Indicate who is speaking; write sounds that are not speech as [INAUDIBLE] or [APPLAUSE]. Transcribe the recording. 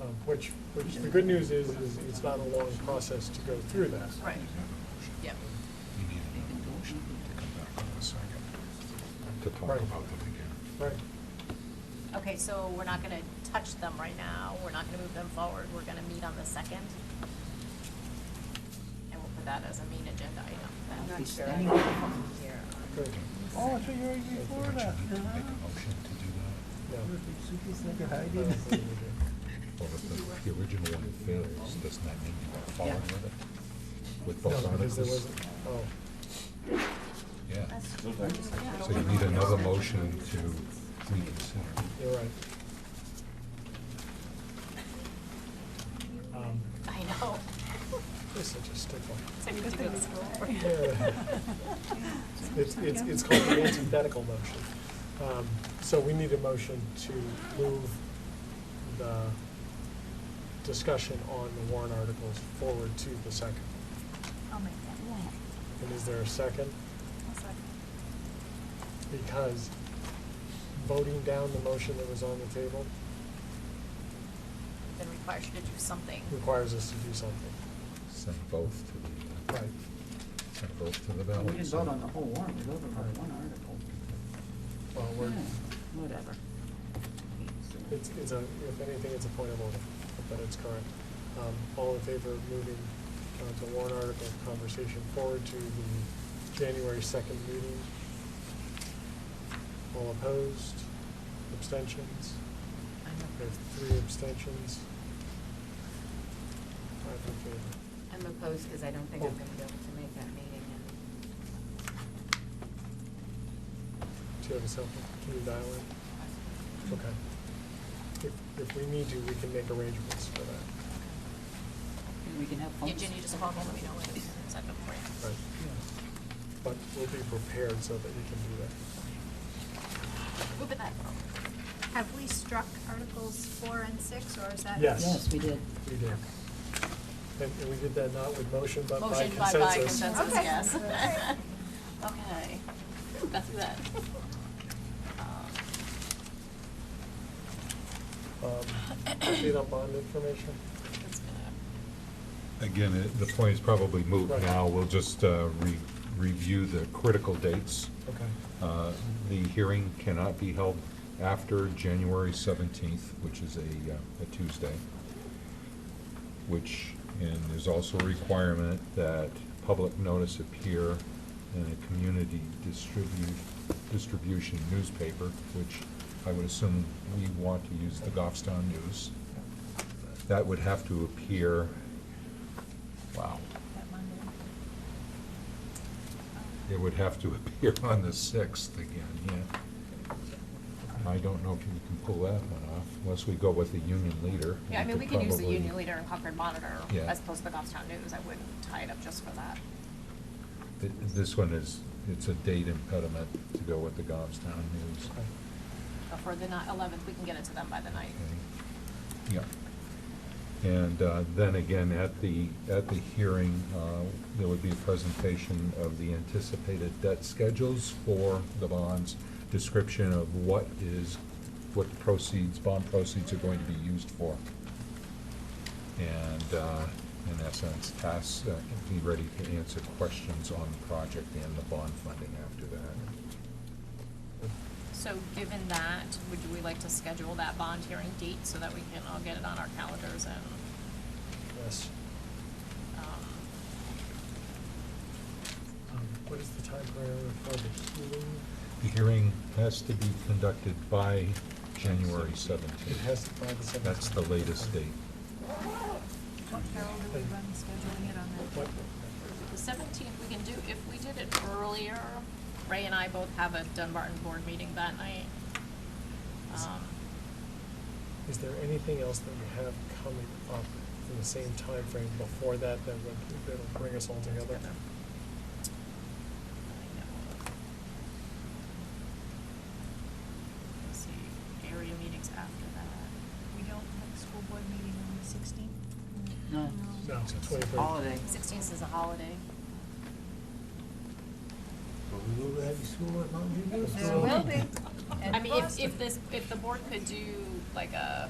Speaker 1: Um, Which, which the good news is, is it's not a long process to go through that.
Speaker 2: Right, yep.
Speaker 3: We need another motion to come back in a second to talk
Speaker 1: Right.
Speaker 3: about them again.
Speaker 1: Right.
Speaker 2: Okay, so we're not gonna touch them right now, we're not gonna move them forward, we're gonna meet on the second. And we'll put that as a main agenda item
Speaker 4: I'm
Speaker 2: then.
Speaker 4: not sure. I don't know if I'm here.
Speaker 1: Good.
Speaker 5: Oh, so you're in Florida.
Speaker 3: Don't you need to make a
Speaker 5: Uh-huh.
Speaker 3: motion to do that?
Speaker 1: Yeah.
Speaker 5: Suki's like a
Speaker 1: I don't
Speaker 5: hiding.
Speaker 1: think we do.
Speaker 3: Or if the, the original one fails, doesn't that mean you are
Speaker 5: Yeah.
Speaker 3: following with it? With both
Speaker 1: No, Uh, because there
Speaker 3: articles?
Speaker 1: wasn't, oh,
Speaker 3: Yeah,
Speaker 2: Yeah.
Speaker 3: so you need another motion to reconsider.
Speaker 1: you're right. Um,
Speaker 2: I know. [LAUGHS]
Speaker 1: You're such a stickler.
Speaker 2: So you have to go to school.
Speaker 4: [LAUGHS]
Speaker 1: It's, it's, it's called an antithetical motion. Um, So we need a motion to move the discussion on the warrant articles forward to the second.
Speaker 2: I'll make
Speaker 1: And is there a second?
Speaker 2: that.
Speaker 1: Because voting down the motion that was on the table
Speaker 2: Then requires you to do something.
Speaker 1: requires us to do something.
Speaker 3: Send both to the, uh,
Speaker 1: Right.
Speaker 3: send both to the ballot.
Speaker 4: We didn't vote on the whole warrant, we voted on one article.
Speaker 1: Well, we're,
Speaker 4: Yeah, Whatever.
Speaker 1: it's, it's a, if anything, it's a point of order, but it's correct. Um, All in favor of moving uh, the warrant article conversation forward to the January second meeting? All opposed? Abstentions? We have three abstentions. Five in favor.
Speaker 6: I'm opposed because I don't think I'm gonna be able to make that meeting
Speaker 1: Do you have a cell phone? Can you dial in? Okay. If, if we need to, we can make arrangements for that.
Speaker 4: We can have.
Speaker 2: Yeah, Ginny, just call them, let me know when it's set up for you.
Speaker 1: Right. But we'll be prepared so that you can do that.
Speaker 2: Moving that forward.
Speaker 7: Have we struck Articles four and six, or is that?
Speaker 1: Yes.
Speaker 4: Yes, we did.
Speaker 1: We did. And and we did that not with motion, but by
Speaker 2: Motion by
Speaker 1: consensus.
Speaker 2: by consensus,
Speaker 7: Okay.
Speaker 2: yes.
Speaker 7: Okay.
Speaker 2: [LAUGHS] Okay, that's that. Um,
Speaker 1: Um, Update on bond information?
Speaker 2: it's gonna-
Speaker 3: Again, it- the point is probably moot
Speaker 1: Right.
Speaker 3: now. We'll just uh, re- review the critical dates.
Speaker 1: Okay.
Speaker 3: Uh, The hearing cannot be held after January 17th, which is a uh, a Tuesday, which, and there's also a requirement that public notice appear in a community distribute, distribution newspaper, which I would assume we want to use the Goffstown News. That would have to appear, wow, it would have to appear on the 6th again, yeah. I don't know if you can pull that one off, unless we go with the union leader.
Speaker 2: Yeah, I mean, we
Speaker 3: could
Speaker 2: can use the
Speaker 3: probably-
Speaker 2: Union Leader and Concord Monitor
Speaker 3: Yeah.
Speaker 2: as opposed to the Goffstown News. I wouldn't tie it up just for that.
Speaker 3: Th- This one is, it's a date impediment to go with the Goffstown News.
Speaker 1: Okay.
Speaker 2: But for the ni- 11th, we can get it to them by the night.
Speaker 3: Okay. Mm-hmm. Yeah. And uh, then again, at the, at the hearing, uh, there would be a presentation of the anticipated debt schedules for the bonds, description of what is, what proceeds, bond proceeds are going to be used for. And uh, in essence, task, uh, be ready to answer questions on the project and the bond funding after that.
Speaker 2: So given that, would we like to schedule that bond hearing date so that we can all get it on our calendars and,
Speaker 1: Yes.
Speaker 2: um,
Speaker 1: Um, What is the time parameter for the hearing?
Speaker 3: The hearing has to be conducted by January
Speaker 1: It has
Speaker 3: 17th.
Speaker 1: to, by the seventeenth.
Speaker 3: That's the latest date.
Speaker 7: What, Carol, do we run scheduling it on
Speaker 1: What,
Speaker 2: the 17th, we can do, if we did it earlier, Ray and I both have a Dunbarton board meeting that night. Um,
Speaker 1: is there anything else that we have coming up in the same time frame before that that would, that'll bring us all together?
Speaker 2: together. I know. Let's see, area meetings after that.
Speaker 7: We don't have a school board meeting on the sixteenth?
Speaker 4: No.
Speaker 1: No, it's twenty-third.
Speaker 4: Holiday.
Speaker 2: 16th is a holiday.
Speaker 5: But we will have school at Mountain View.
Speaker 2: [LAUGHS]
Speaker 7: There will be.
Speaker 2: I mean, if, if this, if the board could do like a